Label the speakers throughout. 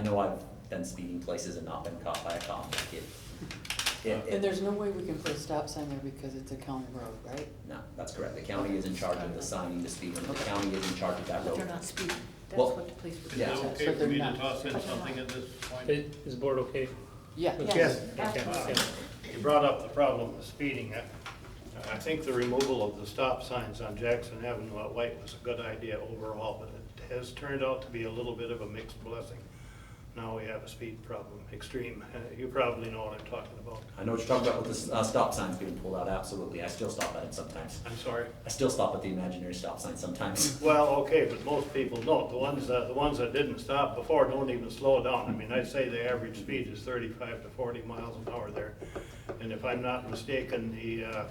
Speaker 1: I know I've been speeding places and not been caught by a cop, like it, it,
Speaker 2: And
Speaker 1: it,
Speaker 2: there's no way we can put a stop sign there because it's a county road, right?
Speaker 1: no, that's correct, the county is in charge of the signing, the speed limit, the county is in charge of that
Speaker 3: But
Speaker 1: road.
Speaker 3: they're not speeding, that's
Speaker 1: Well,
Speaker 3: what the police were.
Speaker 1: yeah.
Speaker 4: Is it
Speaker 3: doing.
Speaker 2: So
Speaker 4: okay for
Speaker 2: they're
Speaker 4: me to
Speaker 2: not-
Speaker 4: toss in
Speaker 3: but they're
Speaker 4: something
Speaker 3: not.
Speaker 4: at this point?
Speaker 5: Is is the board okay?
Speaker 2: Yeah.
Speaker 5: with
Speaker 2: Yes.
Speaker 5: this? Okay,
Speaker 3: Absolutely.
Speaker 5: yeah.
Speaker 4: You brought up the problem of speeding. I I think the removal of the stop signs on Jackson Avenue at White was a good idea overall, but it has turned out to be a little bit of a mixed blessing. Now we have a speed problem, extreme. Uh, You probably know what I'm talking about.
Speaker 1: I know what you're talking about with the, uh, stop signs being pulled out, absolutely, I still stop at it sometimes,
Speaker 4: I'm sorry.
Speaker 1: I still stop at the imaginary stop sign sometimes.
Speaker 4: Well, okay, but most people don't. The ones that, the ones that didn't stop before don't even slow down. I mean, I'd say the average speed is thirty-five to forty miles an hour there. And if I'm not mistaken, the, uh,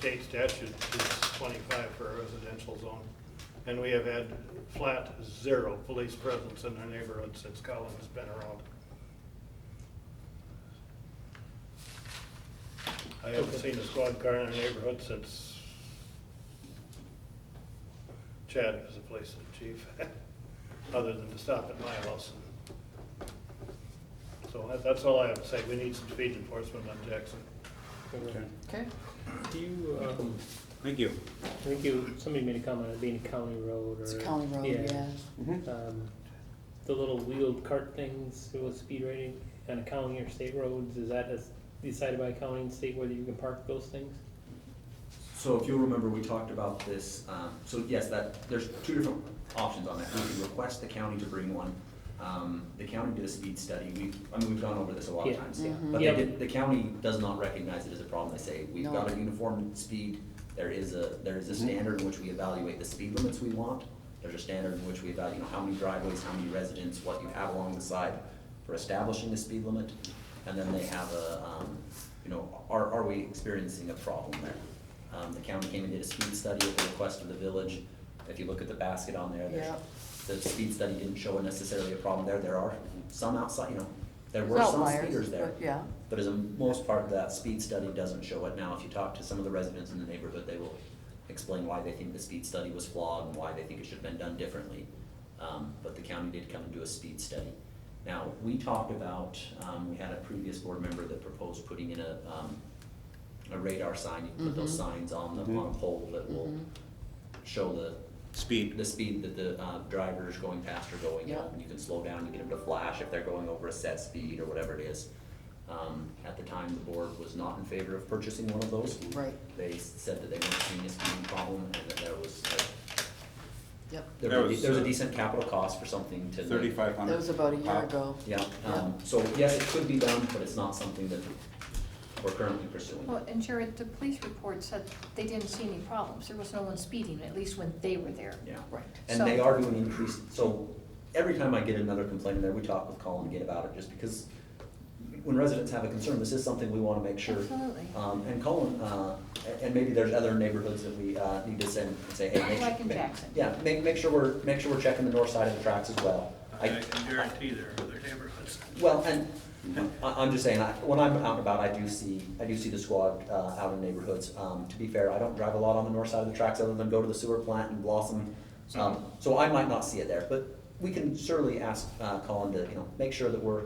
Speaker 4: state statute is twenty-five for a residential zone. And we have had flat zero police presence in our neighborhood since Colin's been around. I haven't seen a squad car in our neighborhood since Chad was the police chief, other than to stop at my house. So that- that's all I have to say. We need some speed enforcement on Jackson.
Speaker 2: Okay,
Speaker 5: Do you, uh,
Speaker 6: Thank you.
Speaker 5: I think you, somebody made a comment on being a county road or.
Speaker 2: it's a county road, yeah.
Speaker 5: Um, The little wheeled cart things with speed rating on a county or state roads, is that as- decided by county and state whether you can park those things?
Speaker 1: So if you'll remember, we talked about this, um, so yes, that, there's two different options on that, we can request the county to bring one. Um, the county did a speed study, we, I mean, we've gone over this a lot of
Speaker 5: Yeah.
Speaker 1: times.
Speaker 2: Yeah.
Speaker 1: But they
Speaker 5: Yeah.
Speaker 1: did, the county does not recognize it as a problem, they say, we've
Speaker 2: No.
Speaker 1: got a uniform speed, there is a, there is a standard in which we evaluate the speed limits we want, there's a standard in which we evaluate, you know, how many driveways, how many residents, what you have along the side for establishing the speed limit, and then they have a, um, you know, are, are we experiencing a problem there? Um, the county came and did a speed study at the request of the village, if you look at the basket on there, there's,
Speaker 2: Yeah.
Speaker 1: the speed study didn't show necessarily a problem there, there are some outside, you know, there
Speaker 2: There's
Speaker 1: were some
Speaker 2: outliers,
Speaker 1: speeders there.
Speaker 2: but yeah.
Speaker 1: But as a most part, that speed study doesn't show it. Now, if you talk to some of the residents in the neighborhood, they will explain why they think the speed study was flawed and why they think it should have been done differently. Um, but the county did come and do a speed study. Now, we talked about, um, we had a previous board member that proposed putting in a, um, a radar sign. You can put those
Speaker 2: Mhm.
Speaker 1: signs on the, on a
Speaker 6: Mhm.
Speaker 1: pole that will
Speaker 2: Mhm.
Speaker 1: show the
Speaker 6: Speed.
Speaker 1: the speed that the uh, driver's going past or going
Speaker 2: Yeah.
Speaker 1: at. You can slow down, you get them to flash if they're going over a set speed or whatever it is. Um, At the time, the board was not in favor of purchasing one of those.
Speaker 2: Right,
Speaker 1: They said that they weren't seeing a speeding problem and that there was, uh,
Speaker 2: yep.
Speaker 1: there
Speaker 6: That
Speaker 1: was,
Speaker 6: was,
Speaker 1: there was a
Speaker 6: uh,
Speaker 1: decent capital cost for something to. make-
Speaker 6: Thirty-five hundred.
Speaker 2: That was about a year ago.
Speaker 1: Yeah, um, so yes, it could be done, but it's not something that we're currently pursuing.
Speaker 3: Well, and Jared, the police report said they didn't see any problems, there was no one speeding, at least when they were there.
Speaker 1: Yeah.
Speaker 2: Right.
Speaker 1: And
Speaker 3: So- um,
Speaker 1: they are doing increased, so every time I get another complaint in there, we talk with Colin again about it, just because when residents have a concern, this is something we wanna make sure.
Speaker 3: Absolutely.
Speaker 1: Um, and Colin, uh, and- and maybe there's other neighborhoods that we, uh, need to send, and say, hey, make sure.
Speaker 3: Like in
Speaker 1: make-
Speaker 3: Jackson.
Speaker 1: Yeah, make, make sure we're, make sure we're checking the north side of the tracks as well.
Speaker 4: I can guarantee there are other neighborhoods.
Speaker 1: Well, and I, I'm just saying, I, when I'm out and about, I do see, I do see the squad, uh, out in neighborhoods. Um, to be fair, I don't drive a lot on the north side of the tracks other than go to the sewer plant and Blossom. Um, so I might not see it there, but we can surely ask, uh, Colin to, you know, make sure that we're,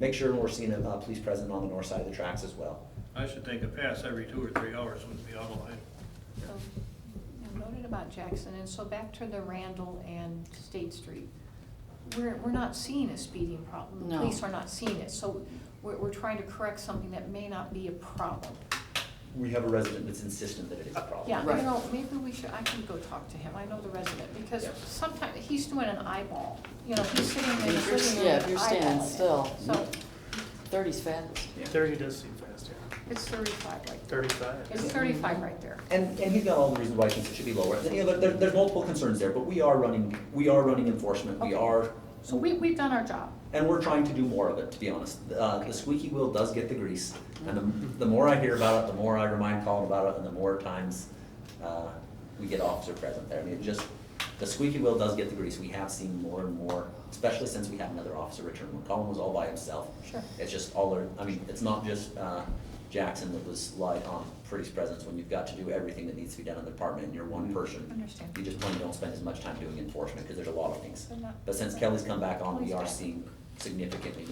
Speaker 1: make sure we're seeing a, uh, police presence on the north side of the tracks as well.
Speaker 4: I should think a pass every two or three hours wouldn't be out of line.
Speaker 3: So, I noted about Jackson, and so back to the Randall and State Street. We're, we're not seeing a speeding problem, the
Speaker 2: No.
Speaker 3: police are not seeing it, so we're, we're trying to correct something that may not be a problem.
Speaker 1: We have a resident that's insistent that it is a problem.
Speaker 3: Yeah,
Speaker 2: Right.
Speaker 3: you know, maybe we should, I can go talk to him, I know the resident, because
Speaker 1: Yeah.
Speaker 3: sometimes, he's doing an eyeball, you know, he's sitting there,
Speaker 2: If you're-
Speaker 3: he's sitting
Speaker 2: yeah,
Speaker 3: there
Speaker 2: if
Speaker 3: eyeballing
Speaker 2: you're standing
Speaker 3: it.
Speaker 2: still.
Speaker 3: So,
Speaker 2: Thirty's fast.
Speaker 1: Yeah.
Speaker 7: Thirty does seem fast, yeah.
Speaker 3: it's thirty-five right there, it's
Speaker 7: Thirty-five.
Speaker 3: thirty-five right there.
Speaker 1: And, and he's got all the reasons why he thinks it should be lower. You know, there- there, there's multiple concerns there, but we are running, we are running enforcement, we
Speaker 3: Okay.
Speaker 1: are
Speaker 3: So we, we've done our job.
Speaker 1: And we're trying to do more of it, to be honest. Uh, the squeaky wheel does get the grease, and the, the more I hear about it, the more I remind Colin about it, and the more times, uh, we get officer present there. I mean, it just, the squeaky wheel does get the grease. We have seen more and more, especially since we had another officer return. When Colin was all by himself.
Speaker 3: Sure.
Speaker 1: It's just all, our- I mean, it's not just, uh, Jackson that was light on police presence when you've got to do everything that needs to be done in the department and you're one person.
Speaker 3: Understand.
Speaker 1: You just plain don't spend as much time doing enforcement, because there's a lot of things.
Speaker 3: They're not-
Speaker 1: But since Kelly's come back on, we
Speaker 3: Kelly's
Speaker 1: are
Speaker 3: back.
Speaker 1: seeing significantly